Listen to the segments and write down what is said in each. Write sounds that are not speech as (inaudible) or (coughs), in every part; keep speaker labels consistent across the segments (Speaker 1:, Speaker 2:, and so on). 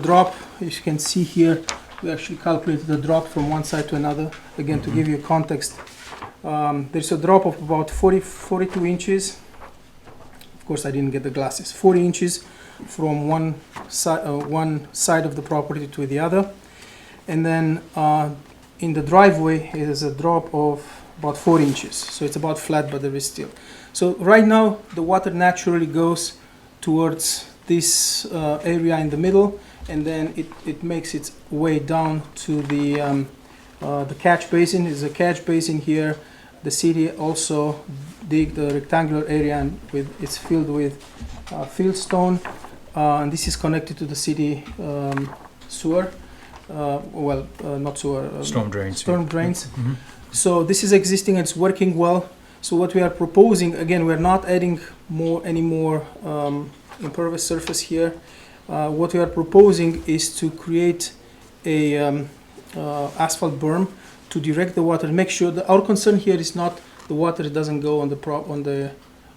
Speaker 1: drop, as you can see here, we actually calculated the drop from one side to another. Again, to give you context, um, there's a drop of about 40, 42 inches. Of course, I didn't get the glasses. 40 inches from one side, uh, one side of the property to the other. And then uh, in the driveway is a drop of about four inches. So it's about flat, but there is still. So right now, the water naturally goes towards this uh, area in the middle, and then it, it makes its way down to the, um, uh, the catch basin. Is a catch basin here. The city also dig the rectangular area and with, it's filled with uh, fieldstone. Uh, and this is connected to the city um, sewer. Uh, well, uh, not sewer. uh,
Speaker 2: Storm drains.
Speaker 1: storm drains.
Speaker 2: Mhm.
Speaker 1: So this is existing, it's working well. So what we are proposing, again, we're not adding more, any more um, impervious surface here. Uh, What we are proposing is to create a um, uh, asphalt berm to direct the water, make sure that, our concern here is not the water doesn't go on the pro, on the,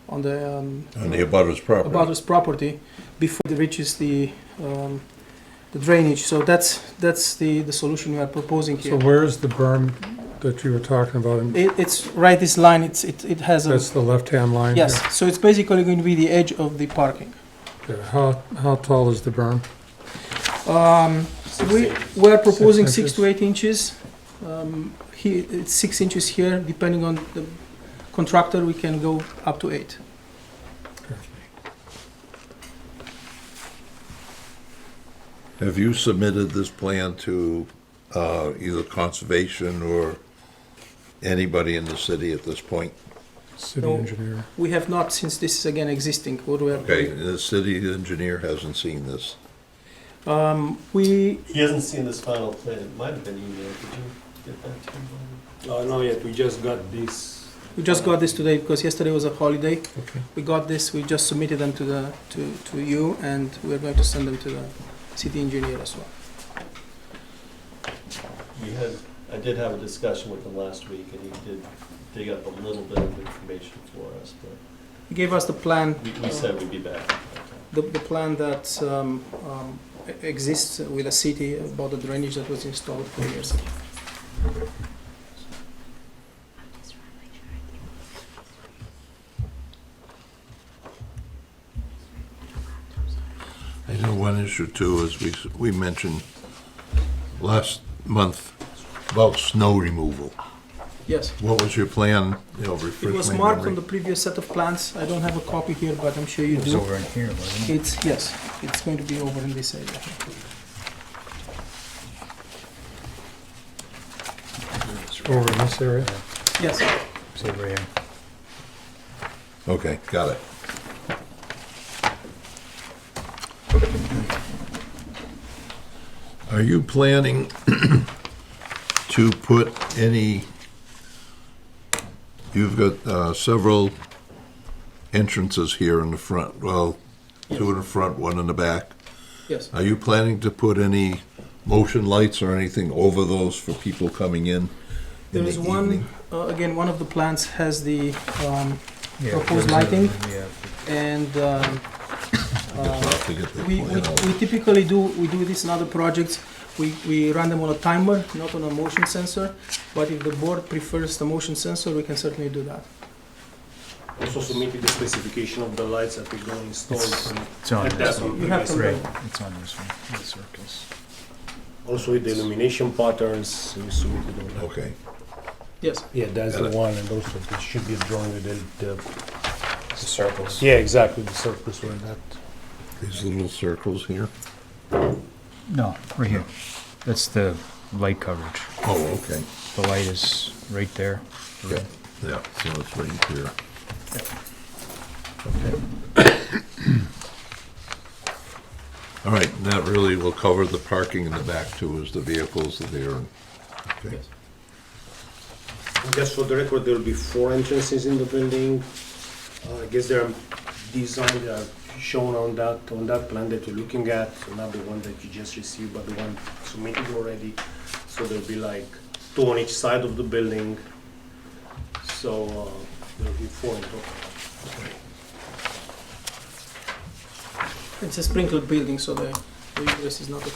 Speaker 1: on the. um,
Speaker 3: on the abutter's property.
Speaker 1: about his property before it reaches the, um, the drainage. So that's, that's the, the solution we are proposing
Speaker 4: So
Speaker 1: here.
Speaker 4: where's the berm that you were talking about? And
Speaker 1: It, it's right this line, it's, it, it has a,
Speaker 4: That's the left-hand line?
Speaker 1: yes, so it's basically going to be the edge of the parking.
Speaker 4: Okay. How, how tall is the berm?
Speaker 1: Um, we, we're proposing
Speaker 4: Six
Speaker 1: six to eight inches. Um, he, it's six inches here, depending on the contractor, we can go up to eight.
Speaker 3: Have you submitted this plan to uh, either conservation or anybody in the city at this point?
Speaker 4: City
Speaker 1: No.
Speaker 4: engineer.
Speaker 1: We have not, since this is again existing, what we are.
Speaker 3: Okay, the city engineer hasn't seen this.
Speaker 1: Um, we,
Speaker 5: He hasn't seen this final plan. It might have been emailed. Did you get that to him? Bob?
Speaker 6: Uh, no, yet, we just got this.
Speaker 1: we just got this today because yesterday was a holiday. We got this, we just submitted them to the, to, to you, and we're going to send them to the city engineer as well.
Speaker 5: We had, I did have a discussion with him last week, and he did dig up a little bit of information for us, but
Speaker 1: He gave us the plan,
Speaker 5: we, we said we'd be back. at that time.
Speaker 1: the, the plan that um, um, e- exists with the city about the drainage that was installed four years ago.
Speaker 3: I know one issue too, is we, we mentioned last month about snow removal.
Speaker 1: Yes.
Speaker 3: What was your plan, you know, refresh
Speaker 1: It was
Speaker 3: my
Speaker 1: marked on
Speaker 3: memory?
Speaker 1: the previous set of plans. I don't have a copy here, but I'm sure you
Speaker 2: It was
Speaker 1: do.
Speaker 2: over in here, wasn't it?
Speaker 1: It's, yes, it's going to be over in this area.
Speaker 4: Over in this area?
Speaker 1: Yes,
Speaker 2: It's over here.
Speaker 3: Okay, got it. Are you planning (clears throat) to put any, you've got uh, several entrances here in the front, well, two in the front, one in the back.
Speaker 1: yes.
Speaker 3: Are you planning to put any motion lights or anything over those for people coming in in
Speaker 1: There
Speaker 3: the
Speaker 1: is one,
Speaker 3: evening?
Speaker 1: uh, again, one of the plans has the, um,
Speaker 2: Yeah,
Speaker 1: Proposed
Speaker 2: it was over-
Speaker 1: lighting?
Speaker 2: Yeah.
Speaker 1: and
Speaker 3: (coughs)
Speaker 1: um,
Speaker 3: I'll
Speaker 1: uh,
Speaker 3: have to get the
Speaker 1: We, we
Speaker 3: plan out.
Speaker 1: we typically do, we do this in other projects. We, we run them on a timer, not on a motion sensor. But if the board prefers the motion sensor, we can certainly do that.
Speaker 6: Also submitted the specification of the lights that we're gonna install.
Speaker 2: It's-
Speaker 6: and-
Speaker 2: It's on
Speaker 6: and
Speaker 2: this
Speaker 6: that's
Speaker 2: one.
Speaker 6: on
Speaker 1: You
Speaker 6: the
Speaker 1: have
Speaker 6: best.
Speaker 1: to-
Speaker 2: Right, it's on this one, the circles.
Speaker 6: Also with the illumination patterns, we submitted all that.
Speaker 3: Okay.
Speaker 1: Yes.
Speaker 6: Yeah, that's
Speaker 3: Got
Speaker 6: the
Speaker 3: it.
Speaker 6: one, and also it should be drawn with the, the,
Speaker 2: The circles.
Speaker 6: yeah, exactly, the surface where that.
Speaker 3: These little circles here?
Speaker 2: No, right here. That's the light coverage.
Speaker 3: Oh, okay.
Speaker 2: The light is right there.
Speaker 3: Yeah, yeah, so it's right here. (coughs) All right, and that really will cover the parking in the back too, as the vehicles are there. and- okay.
Speaker 1: Yes.
Speaker 6: Just for the record, there'll be four entrances in the building. Uh, I guess they're designed, they are shown on that, on that plan that you're looking at, not the one that you just received, but the one submitted already. So there'll be like two on each side of the building. So uh, there'll be four in total.
Speaker 1: It's a sprinkled building, so the the egress is not a